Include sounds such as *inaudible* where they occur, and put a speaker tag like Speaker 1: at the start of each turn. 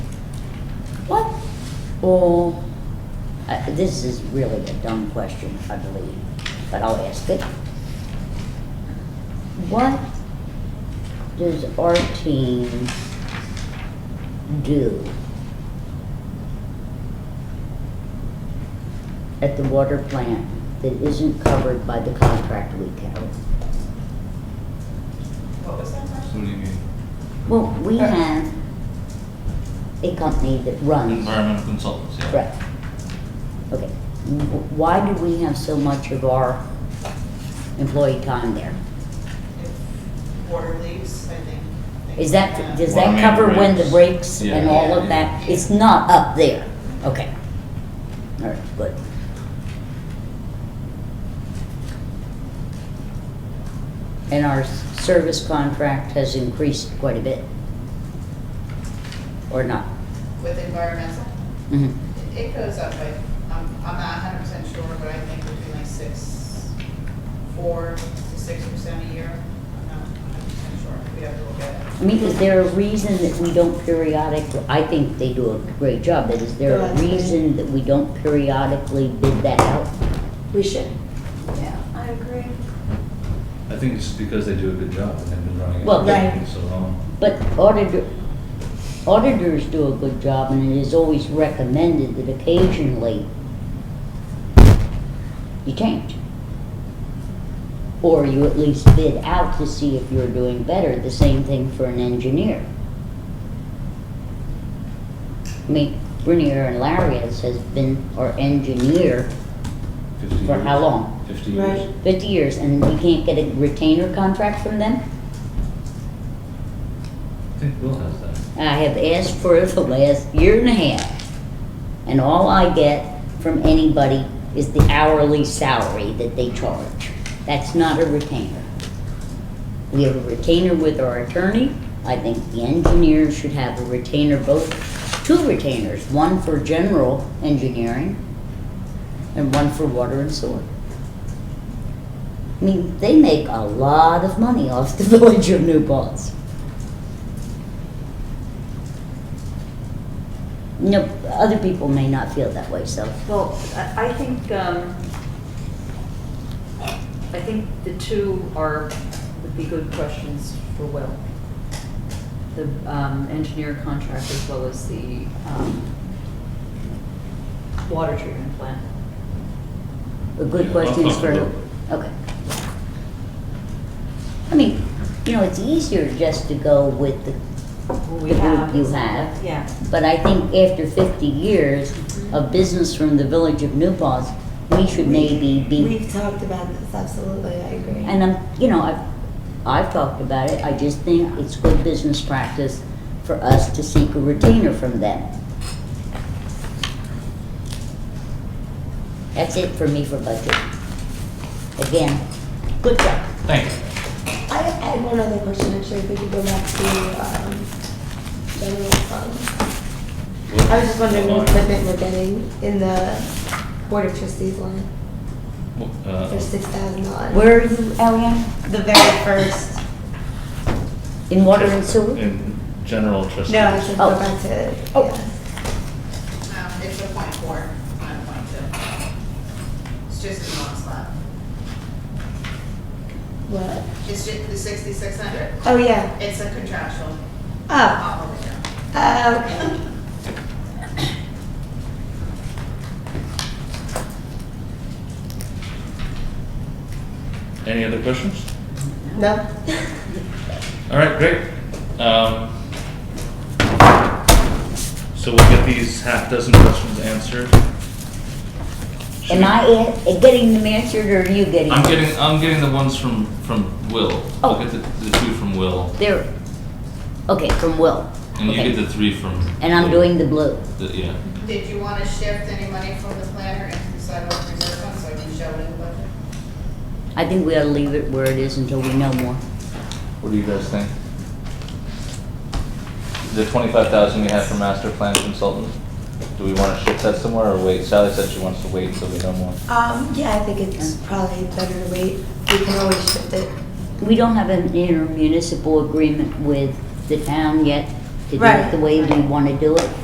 Speaker 1: all, uh, this is really a dumb question, I believe, but I'll ask it. What does our team do at the water plant that isn't covered by the contract we carry?
Speaker 2: What was that question?
Speaker 3: What do you mean?
Speaker 1: Well, we have a company that runs.
Speaker 3: Environmental consultants, yeah.
Speaker 1: Right. Okay. Wh- Why do we have so much of our employee time there?
Speaker 2: If Water leaks, I think. things
Speaker 1: Is that,
Speaker 2: like
Speaker 1: does
Speaker 3: Water
Speaker 1: that
Speaker 3: main
Speaker 1: cover when the
Speaker 3: breaks.
Speaker 1: breaks and
Speaker 3: Yeah.
Speaker 1: all of
Speaker 3: Yeah.
Speaker 1: that? It's not up there? Okay. All right, good. And our s- service contract has increased quite a bit? Or not?
Speaker 2: With environmental,
Speaker 1: Mhm.
Speaker 2: it- it goes up, but I'm, I'm not hundred percent sure, but I think between like six, four to six percent a year. I'm not hundred percent sure, we have to look at it.
Speaker 1: I mean, is there a reason that we don't periodically, I think they do a great job, but is there
Speaker 4: Go
Speaker 1: a
Speaker 4: ahead, please.
Speaker 1: reason that we don't periodically bid that out?
Speaker 4: We should. Yeah, I agree.
Speaker 3: I think it's because they do a good job and they've been running it
Speaker 1: Well,
Speaker 3: for
Speaker 4: right.
Speaker 3: so long.
Speaker 1: But auditor, auditors do a good job and it is always recommended that occasionally you change. Or you at least bid out to see if you're doing better, the same thing for an engineer. I mean, Brunier and Lariat has been our engineer
Speaker 3: 50
Speaker 1: For
Speaker 3: years.
Speaker 1: how long?
Speaker 3: Fifty
Speaker 4: Right.
Speaker 3: years.
Speaker 1: fifty years and we can't get a retainer contract from them?
Speaker 3: I think Will has that.
Speaker 1: I have asked for it the last year and a half, and all I get from anybody is the hourly salary that they charge. That's not a retainer. We have a retainer with our attorney. I think the engineers should have a retainer, both, two retainers, one for general engineering and one for water and sewer. I mean, they make a lot of money off the *laughs* village of New Paltz. No, other people may not feel that way, so.
Speaker 5: Well, I I think, um, I think the two are, would be good questions for Will. The um, engineer contract as well as the um, water treatment plant.
Speaker 1: A good
Speaker 3: Yeah,
Speaker 1: question is for,
Speaker 3: uncomfortable.
Speaker 1: okay. I mean, you know, it's easier just to go with the,
Speaker 5: What we
Speaker 1: The group
Speaker 5: have
Speaker 1: you
Speaker 5: is-
Speaker 1: have.
Speaker 5: Yeah.
Speaker 1: but I think after fifty years of business from the village of New Paltz, we should maybe be,
Speaker 4: We've talked about this, absolutely, I agree.
Speaker 1: and I'm, you know, I've, I've talked about it, I just think it's good business practice for us to seek a retainer from them. That's it for me for budget. Again, good job.
Speaker 3: Thank you.
Speaker 4: I I had one other question, actually, if we could go back to, um, general fund. I was just wondering what equipment we're getting in the board of trustees line for
Speaker 3: Uh,
Speaker 4: six thousand dollars.
Speaker 1: Where are you, Elian?
Speaker 4: The very first,
Speaker 1: In water and sewer?
Speaker 3: In general trustees.
Speaker 4: no, I should
Speaker 1: Oh.
Speaker 4: go back to,
Speaker 1: Oh.
Speaker 4: yeah.
Speaker 2: Um, it's a point four, not a point two. It's just in one slot.
Speaker 4: What?
Speaker 2: It's just the sixty-six hundred,
Speaker 4: Oh, yeah.
Speaker 2: it's a contractual
Speaker 4: Oh,
Speaker 2: obligation.
Speaker 4: uh, okay.
Speaker 3: Any other questions?
Speaker 1: *laughs*
Speaker 4: No?
Speaker 3: All right, great. Um, So we'll get these half dozen questions answered. Should
Speaker 1: Am
Speaker 3: we-
Speaker 1: I a- getting them answered or are you getting?
Speaker 3: I'm
Speaker 1: them?
Speaker 3: getting, I'm getting the ones from, from Will. I'll
Speaker 1: Oh.
Speaker 3: get the, the two from Will,
Speaker 1: There. Okay, from Will.
Speaker 3: and you
Speaker 1: Okay.
Speaker 3: get the three from.
Speaker 1: And I'm
Speaker 3: Will.
Speaker 1: doing the blue.
Speaker 3: The- Yeah.
Speaker 2: Did you want to shift any money from the planner into the sidewalk reserve fund so I can show it in the budget?
Speaker 1: I think we ought to leave it where it is until we know more.
Speaker 3: What do you guys think? The twenty-five thousand we have for master plan consultant, do we wanna shift that somewhere or wait? Sally said she wants to wait until we know more.
Speaker 4: Um, yeah, I think it's probably better to wait. We can always shift it.
Speaker 1: We don't have an intermunicipal agreement with the town yet to do it
Speaker 4: Right.
Speaker 1: the way we want to do it.